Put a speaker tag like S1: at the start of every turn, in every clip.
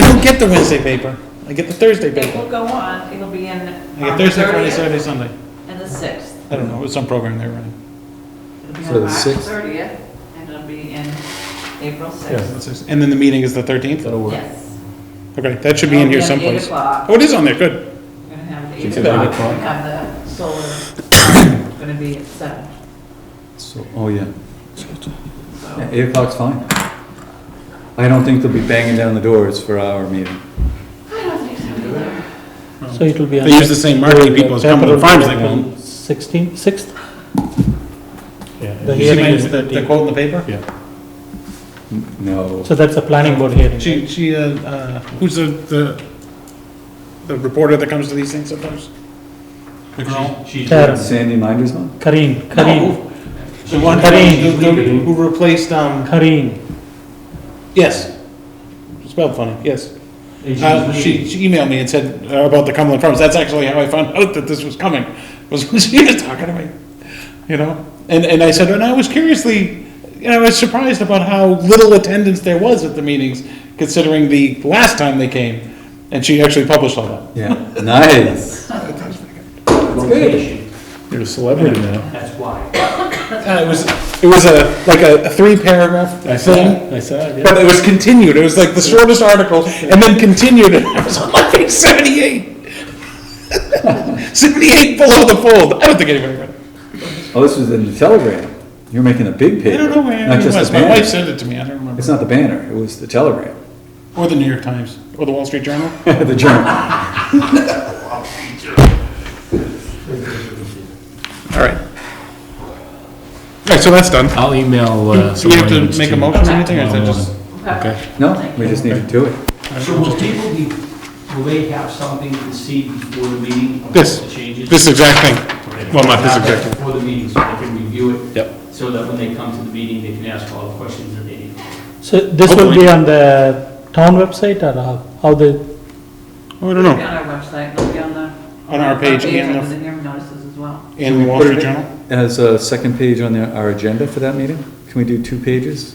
S1: get the Wednesday paper. I get the Thursday
S2: It will
S1: paper.
S2: go on, it'll be in
S1: I get
S2: on the
S1: Thursday, Friday,
S2: 30th
S1: Saturday, Sunday.
S2: and the 6th.
S1: I don't know, it was some program they were running.
S2: It'll be on
S3: So the
S2: March
S3: 6th?
S2: 30th, and it'll be in April
S1: Yeah,
S2: 6th.
S1: that's it. And then the meeting is the 13th?
S3: That'll work.
S2: Yes.
S1: Okay, that should be in here
S2: It'll at
S1: someplace.
S2: 8 Oh, o'clock,
S1: Oh, it is on there, good.
S2: we're gonna have the
S3: She
S2: 8
S3: said
S2: o'clock,
S3: eight o'clock.
S2: we have the solar, gonna be at 7.
S3: So, oh, yeah. Yeah,
S2: So,
S3: Eight o'clock's fine. I don't think they'll be banging down the doors for our meeting.
S2: I don't think so either.
S4: So it will be on.
S1: They use the same marketing people as Cumberland Farms, they will.
S4: Sixteen, sixth? The
S1: Did you see
S4: hearing
S1: my-
S4: is
S1: the- The
S4: 13.
S1: quote in the paper?
S3: N- No.
S4: So that's a planning board hearing.
S1: She, she, uh, uh, who's the, the, the reporter that comes to these things sometimes? The girl?
S5: She's,
S4: Karen,
S3: Sandy Minder's
S1: Oh,
S3: one?
S4: Kareen,
S1: No,
S4: Kareen,
S1: The one,
S4: Kareen.
S1: who- who who replaced, um,
S4: Kareen.
S1: yes. Spelled funny, yes.
S5: she's
S1: Uh, She
S5: leaving.
S1: she emailed me and said uh, about the Cumberland Farms. That's actually how I found out that this was coming, was when she was talking to me, you know? And, and I said, and I was curiously, you know, I was surprised about how little attendance there was at the meetings, considering the last time they came. And she actually published all that.
S3: Yeah, nice.
S5: Rotation,
S1: You're a celebrity now.
S5: that's why.
S1: Uh, It was, it was a, like a three-paragraph thing,
S4: I said,
S1: but it was continued. It was like the shortest article, and then continued, and I was on like page seventy-eight. Seventy-eight below the fold. I don't think anybody read it.
S3: Oh, this was in the Telegram. You're making a big paper.
S1: I don't know where
S3: Not
S1: it
S3: just
S1: was.
S3: the
S1: My wife
S3: banner.
S1: sent it to me. I don't
S3: It's
S1: remember.
S3: not the banner, it was the Telegram,
S1: Or the New York Times, or the Wall Street Journal.
S3: the journal.
S1: All right. All right, so that's done.
S6: I'll email. uh,
S1: So we have
S6: some
S1: to
S6: names
S1: make a
S6: you.
S1: motion or anything, or is that
S6: Tomorrow
S1: just?
S6: morning.
S2: Okay.
S3: No, we just need to do it.
S5: So will people be, will they have something to see before the meeting? about
S1: This-
S5: The changes?
S1: This exact thing. well, not this
S5: Have that
S1: exactly.
S5: Before the meeting, so they can review it.
S1: Yep.
S5: So that when they come to the meeting, they can ask all the questions that they need.
S4: So this will be on the town website or how, how the,
S1: Oh, I don't
S2: It'll be
S1: know.
S2: on our website, it'll be on the.
S1: On our page and
S2: of
S1: the,
S2: the hearing notices as well.
S1: and the Wall Street Journal.
S3: As a second page on the- our agenda for that meeting? Can we do two pages?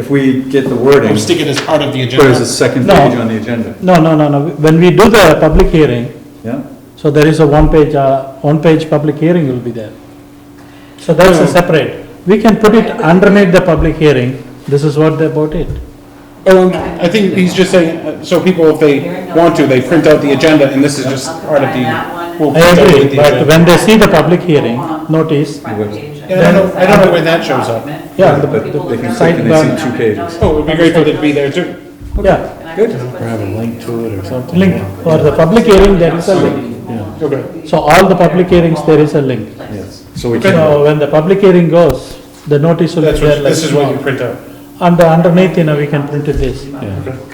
S3: If we get the wording,
S1: I'm sticking as part of the
S3: put it as a
S1: agenda.
S3: second
S4: No.
S3: page on the agenda,
S4: no, no, no, no. When we do the public hearing,
S3: yeah?
S4: so there is a one-page, uh, one-page public hearing will be there. So that's a
S1: No.
S4: separate. We can put it underneath the public hearing. This is what they bought it.
S1: Oh, no, I think he's just saying, uh, so people, if they want to, they print out the agenda, and this is just
S2: I'll
S1: part of
S2: combine
S1: the.
S2: that
S1: we'll
S2: one.
S4: I
S1: print out the
S4: agree, but
S1: agenda.
S4: when they see the public hearing notice,
S2: front page.
S1: Yeah, I don't know- I don't know when that shows up.
S4: Yeah, the-
S3: But they can
S4: site
S3: click and they
S4: plan.
S3: see two pages.
S1: Oh, we'd be grateful to be there too.
S4: yeah,
S2: Good. Grab a link to it or something.
S4: link, for the public hearing, there is a link.
S1: Okay.
S4: So all the public hearings, there is a link.
S3: Yes, so we can,
S4: So when the public hearing goes, the notice will be
S1: That's
S4: there
S1: what,
S4: like
S1: this is what you
S4: tomorrow.
S1: print out.
S4: And underneath, you know, we can print it this.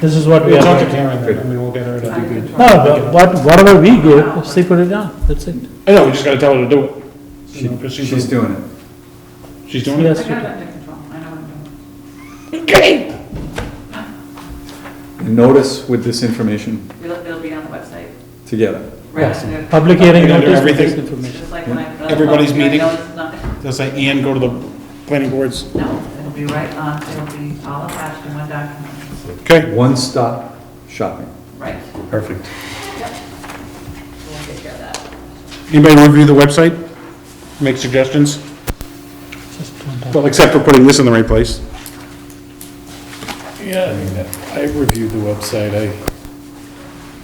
S4: This is what we
S1: We'll
S4: are.
S1: talk to
S4: doing.
S1: Karen then, I mean, we'll get her to.
S4: No, but what, whatever we give, she put it down, that's it.
S1: I know, we just gotta tell her to do it. You know, 'cause
S3: she's doing it.
S1: She's doing it?
S4: Yes,
S2: I
S4: we
S2: got it
S4: do.
S2: under control, I know what I'm doing.
S3: Notice with this information
S2: It'll, it'll be on the website.
S3: together.
S2: Right under-
S4: public hearing
S1: Under
S4: notice,
S1: everything.
S4: this information.
S2: Just like when I put up
S1: Everybody's
S2: the hearing
S1: meeting.
S2: notice, nothing.
S1: They'll say, and go to the planning boards.
S2: No, it'll be right on, it'll be all attached in one document,
S1: Okay.
S3: One-stop shopping.
S2: right?
S1: Perfect.
S2: We'll take care of that.
S1: Anybody wanna review the website? Make suggestions? Well, except for putting this in the right place.
S6: Yeah, I mean, I reviewed the website, I,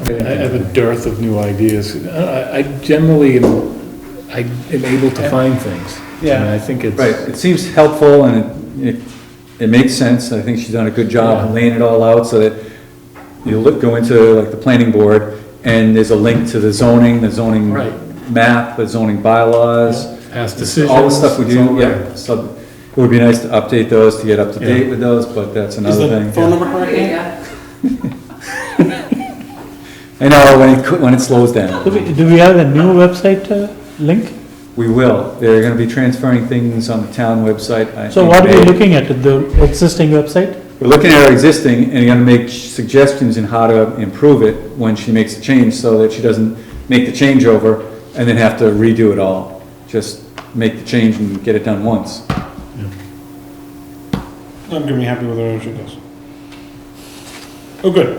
S6: I mean, I have a dearth of new ideas. I I generally, am- I am able to find things.
S1: Yeah.
S6: And I think it's.
S3: Right, it seems helpful and it, it, it makes sense, I think she's done a good job
S6: Yeah.
S3: laying it all out so that you look, go into like the planning board and there's a link to the zoning, the zoning
S6: Right.
S3: map, the zoning bylaws.
S6: Past
S3: All the
S6: decisions,
S3: stuff we
S6: it's all
S3: do,
S6: there.
S3: yeah, so it would be nice to update those, to get up to
S6: Yeah.
S3: date with those, but that's
S1: Is
S3: another
S1: the
S3: thing.
S1: phone
S3: yeah.
S1: number correct? Ian?
S2: Yeah.
S3: I know, when it, co- when it slows down,
S4: Do we, do we have a new website uh, link?
S3: we will, they're gonna be transferring things on the town website. I
S4: So
S3: think
S4: what are
S3: May.
S4: we looking at, the existing website?
S3: We're looking at our existing and you're gonna make suggestions in how to improve it when she makes a change so that she doesn't make the changeover and then have to redo it all. Just make the change and get it done once.
S1: I'm gonna be happy with where she goes. Oh, good.